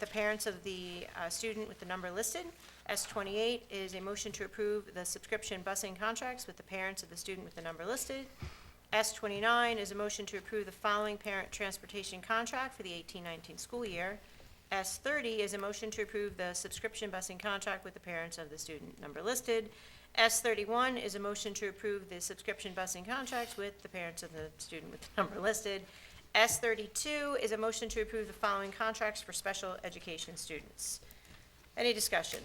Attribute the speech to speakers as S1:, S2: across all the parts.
S1: the parents of the uh, student with the number listed. S twenty-eight is a motion to approve the subscription busing contracts with the parents of the student with the number listed. S twenty-nine is a motion to approve the following parent transportation contract for the 18-19 school year. S thirty is a motion to approve the subscription busing contract with the parents of the student number listed. S thirty-one is a motion to approve the subscription busing contracts with the parents of the student with the number listed. S thirty-two is a motion to approve the following contracts for special education students. Any discussion?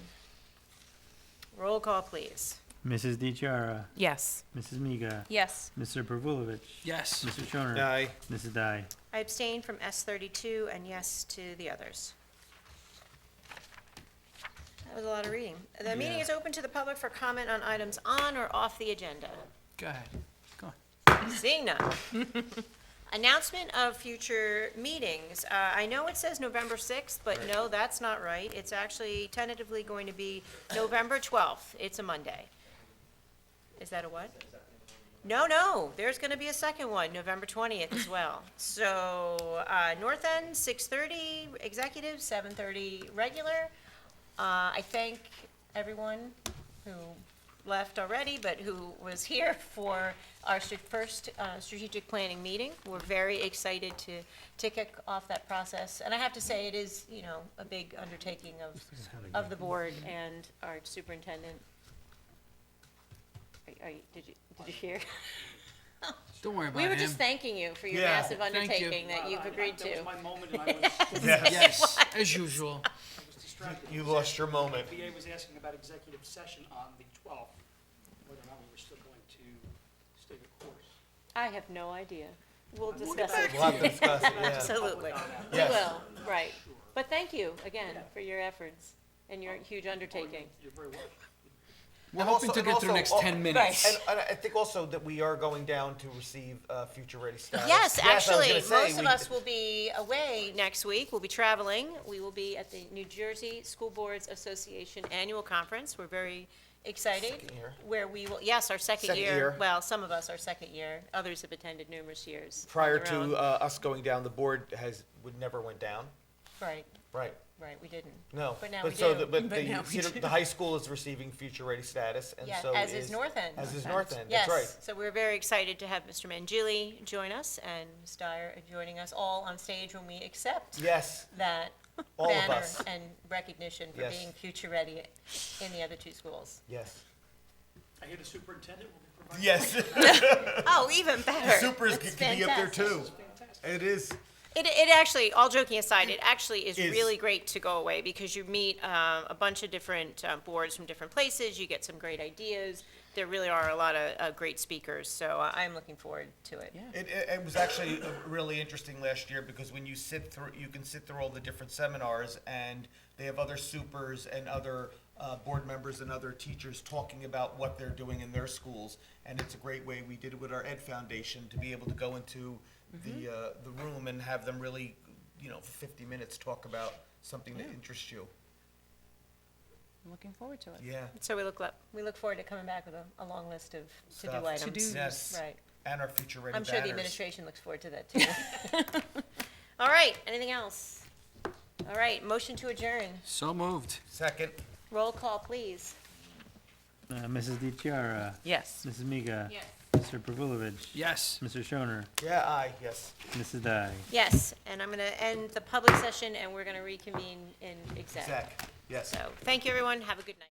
S1: Roll call, please.
S2: Mrs. DiChiara,
S3: Yes.
S2: Mrs. Miga,
S3: Yes.
S2: Mr. Pervulovich,
S4: Yes.
S2: Mr. Shoner,
S4: Aye.
S2: Mrs. Dai.
S1: I abstain from S thirty-two and yes to the others. That was a lot of reading. The meeting
S2: Yeah.
S1: is open to the public for comment on items on or off the agenda.
S4: Go ahead. Go on.
S1: Seeing none. Announcement of future meetings. Uh, I know it says November 6th, but no, that's not right. It's actually tentatively going to be November 12th. It's a Monday. Is that a what? No, no, there's going to be a second one, November 20th as well. So uh, North End, 6:30 executive, 7:30 regular. Uh, I thank everyone who left already, but who was here for our stra- first uh, strategic planning meeting. We're very excited to, to kick off that process. And I have to say, it is, you know, a big undertaking of, of the board and our superintendent. Are- are you- did you, did you hear?
S4: Don't worry about
S1: We were
S4: him.
S1: just thanking you for your
S5: Yeah.
S1: massive
S4: Thank you.
S1: undertaking that you've agreed to.
S6: That was my moment, and I was,
S4: yes, as usual.
S6: I was distracted.
S5: You lost your moment.
S6: The VA was asking about executive session on the 12th, whether or not we were still going to stay the course.
S1: I have no idea. We'll discuss it.
S5: We'll have to discuss it, yeah.
S1: Absolutely. We
S5: Yes.
S1: will, right. But thank you again for your efforts and your huge undertaking.
S6: You're very welcome.
S4: We're
S5: And
S4: hoping
S5: also-
S4: to
S5: and
S4: get through the next
S5: also- oh,
S4: 10 minutes.
S5: And, and I think also that we are going down to receive uh, future ready status.
S1: Yes,
S5: I was
S1: actually,
S5: gonna say,
S1: most of
S5: we-
S1: us will be away next week. We'll be traveling. We will be at the New Jersey School Boards Association Annual Conference. We're very excited.
S5: Second year.
S1: Where we will, yes, our second
S5: Second
S1: year.
S5: year.
S1: Well, some of us, our second year. Others have attended numerous years. on
S5: Prior
S1: their
S5: to
S1: own.
S5: uh, us going down, the board has, would never went down,
S1: Right,
S5: right?
S1: right, we didn't.
S5: No.
S1: But now we
S5: so
S1: do.
S5: the- But
S3: But now
S5: the,
S3: we
S5: Cedar-
S3: do.
S5: the high school is receiving future ready status, and
S1: Yeah,
S5: so
S1: as
S5: is.
S1: is North End.
S5: As is North End, that's right.
S1: Yes, so we're very excited to have Mr. Mangili join us and Ms. Dyer joining us all on stage when we accept
S5: Yes,
S1: that
S5: All of
S1: banner
S5: us.
S1: and recognition for
S5: Yes.
S1: being future ready in the other two schools.
S5: yes.
S6: I hear the superintendent will be providing.
S5: Yes,
S1: Oh, even better.
S5: supers
S1: That's
S5: can be up there
S1: fantastic.
S5: too. It is.
S1: It, it actually, all joking aside, it actually is
S5: Is-
S1: really great to go away because you meet uh, a bunch of different uh, boards from different places, you get some great ideas. There really are a lot of uh, great speakers, so uh, I'm looking forward to it.
S5: It, it, it was actually uh, really interesting last year because when you sit through, you can sit through all the different seminars, and they have other supers and other uh, board members and other teachers talking about what they're doing in their schools, and it's a great way. We did it with our Ed Foundation to be able to go into
S1: Mm-hmm.
S5: the uh, the room and have them really, you know, for 50 minutes talk about something that interests you.
S3: I'm looking forward to it.
S5: Yeah.
S1: So we look, lo- we look forward to coming back with a, a long list of
S5: Stuff.
S1: to-do items.
S5: Yes.
S1: Right.
S5: And our future ready.
S1: I'm sure the
S5: banners.
S1: administration looks forward to that too. All right, anything else? All right, motion to adjourn.
S4: So moved.
S5: Second.
S1: Roll call, please.
S2: Uh, Mrs. DiChiara,
S3: Yes.
S2: Mrs. Miga,
S1: Yes.
S2: Mr. Pervulovich,
S4: Yes.
S2: Mr. Shoner,
S5: Yeah. Aye. Yes.
S2: Mrs. Dai.
S1: Yes, and I'm going to end the public session and we're going to reconvene in exec.
S5: Zach. Yes.
S1: So, thank you, everyone. Have a good night.